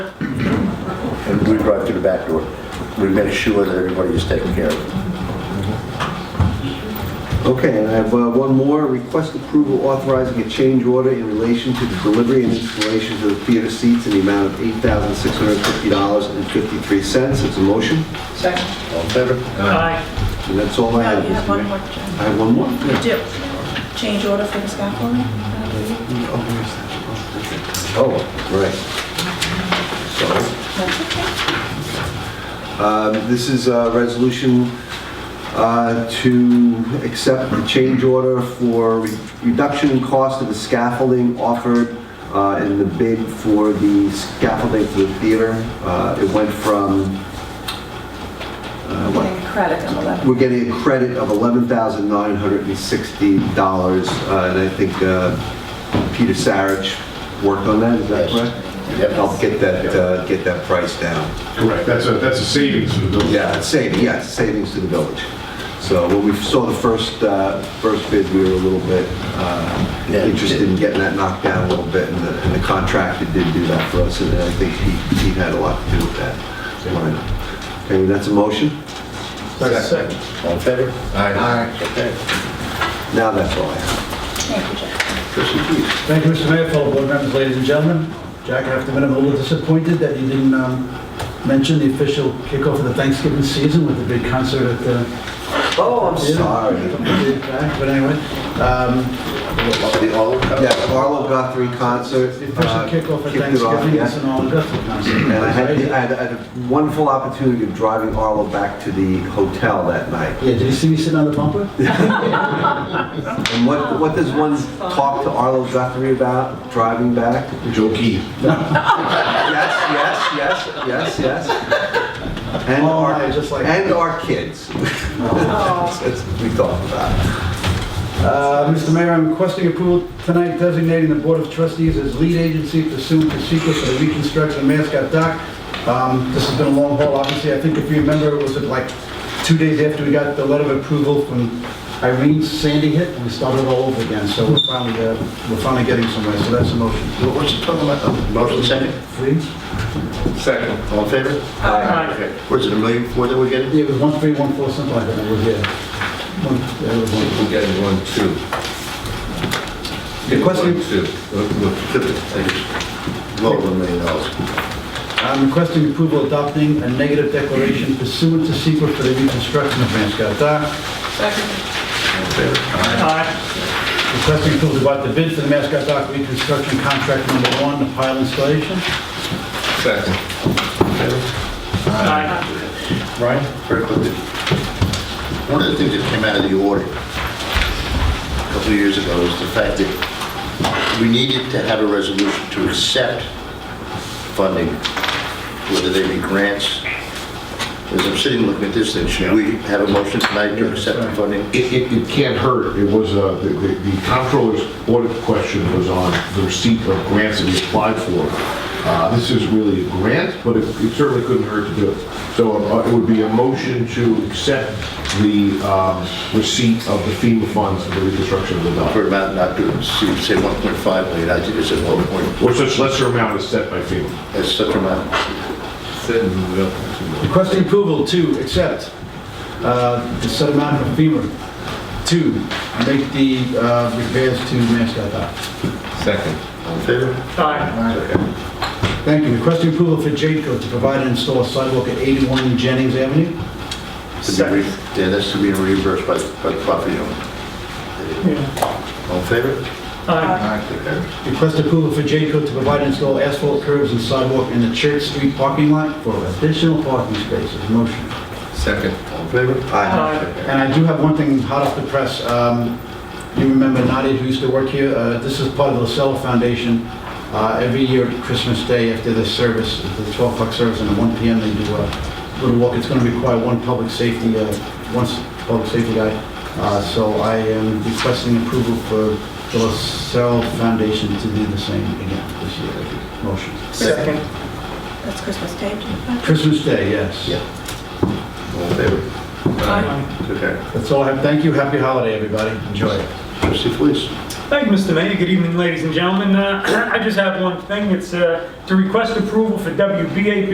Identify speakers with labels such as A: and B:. A: And we drive through the back door. We make sure that everybody is taken care of.
B: Okay, and I have uh, one more, request approval authorizing a change order in relation to the delivery and installation of the theater seats in the amount of $8,650.53. It's a motion,
C: Second.
A: All in favor?
D: Uh,
C: Aye.
B: and that's all I
E: No,
B: have.
E: Oh, you have
B: Mr.
E: one
B: Mayor.
E: more, Jen.
B: I have one more? Yeah.
E: You do. Change order for the scaffolding? I believe.
B: Oh, where is that? Oh, okay. Oh, right. So,
E: That's okay.
B: Um, This is a resolution uh, to accept the change order for re- reduction in cost of the scaffolding offered uh, in the bid for the scaffolding for the theater. Uh, It went from, uh, what-
E: Getting credit on the left.
B: we're getting a credit of $11,960, uh, and I think uh, Peter Sarich worked on that, is that
A: Yes.
B: correct?
A: Yep.
B: Helped get that, uh, get that price down.
F: Correct, that's a, that's a savings for the building.
B: Yeah, it's saving, yes, savings to the village. So when we saw the first, uh, first bid, we were a little bit uh,
A: Yeah.
B: interested in getting that knocked down a little bit, and the and the contractor did do that for us, and I think he, he had a lot to do with that. Okay, that's a motion?
F: Second.
A: All in favor?
F: Aye.
A: Okay.
B: Now that's all I have.
E: Thank you, Jeff.
B: Trustee Keating.
G: Thank you, Mr. Mayor, fellow board members, ladies and gentlemen. Jack, I have to admit, I'm a little disappointed that you didn't um, mention the official kickoff of the Thanksgiving season with the big concert at the...
B: Oh, I'm sorry.
G: But anyway, um,
A: The all of them?
B: Yeah, Arlo Guthrie concert.
G: the official
B: uh,
G: kickoff of
B: kicked it off,
G: Thanksgiving
B: yeah.
G: is an all Guthrie concert.
B: And I had, the- I
G: right?
B: had I had a wonderful opportunity of driving Arlo back to the hotel that night.
G: Yeah, did you see me sitting on the bumper?
B: And what, what does one talk to Arlo Guthrie about driving back?
F: Joe Key.
B: Yes, yes, yes, yes, yes. And
G: Oh,
B: our,
G: my, just like- Oh.
B: and our kids. That's what we talk about.
G: Uh, Mr. Mayor, I'm requesting approval tonight designating the Board of Trustees as lead agency pursuant to secret for the reconstruction of Mascot Dock. Um, This has been a long haul, obviously. I think if you remember, it was like two days after we got the letter of approval from Irene Sandy hit, and we started all over again. So we're finally, uh, we're finally getting somewhere, so that's a motion.
A: What was it talking about? Oh, Motion second?
G: Please?
F: Second.
A: All in favor? Aye. Was it a million four that we're getting?
G: Yeah, it was one, three, one, four, something like that, it was, yeah. One- yeah, it was one.
D: We're getting one, two.
G: The question-
D: One, two. Look, look.
A: Fifty, I guess. Well, over a million dollars.
G: I'm requesting approval adopting a negative declaration pursuant to secret for the reconstruction of Mascot Dock.
C: Second. Aye.
G: Requesting approval to award the bid for the Mascot Dock reconstruction contract number one, the pile installation.
D: Second.
C: Aye.
G: Right.
A: Very quickly. One of the things that came out of the audit a couple of years ago was the fact that we needed to have a resolution to accept funding, whether they be grants. As I'm sitting looking at this thing, should we have a motion tonight to accept the funding?
F: It, it, it can't hurt, it was, uh, the, the the comptroller's audit question was on the receipt of grants that we applied for. Uh, this is really a grant, but it it certainly couldn't hurt to do it. So uh, it would be a motion to accept the, um, receipt of the FEMA funds for the reconstruction of the dock.
A: For amount not to, see, say 1.5 million, I think it's at 1 point,
F: Or such lesser amount is set by FEMA.
A: that's such amount.
D: Second, move it up two more.
G: Requesting approval to accept uh, the set amount of FEMA to make the uh, repairs to Mascot Dock.
D: Second.
A: All in favor?
C: Aye.
G: Thank you. Requesting approval for Jadeco to provide and install a sidewalk at 81 Jennings Avenue.
A: To be re- Yeah, that's to be reimbursed by, by the property owner. All in favor?
C: Aye.
A: Okay.
G: Request approval for Jadeco to provide and install asphalt curbs and sidewalk in the Church Street parking lot for additional parking spaces. Motion.
D: Second.
A: All in favor?
C: Aye.
G: And I do have one thing hot off the press. Um, You remember Nadia, who used to work here? Uh, This is part of the LaSalle Foundation. Uh, Every year at Christmas Day, after the service, the 12 o'clock service, and at 1 PM, they do a little walk. It's going to require one public safety, uh, one s- public safety guy. Uh, So I am requesting approval for the LaSalle Foundation to do the same again this year. Motion.
C: Second.
E: That's Christmas Day, Jen.
G: Christmas Day, yes.
A: Yeah. All in favor?
C: Aye.
A: Okay.
G: That's all I have. Thank you. Happy holiday, everybody. Enjoy it.
A: Trustee Felice?
C: Thank you, Mr. Mayor. Good evening, ladies and gentlemen. Uh, I just have one thing. It's uh, to request approval for WBAP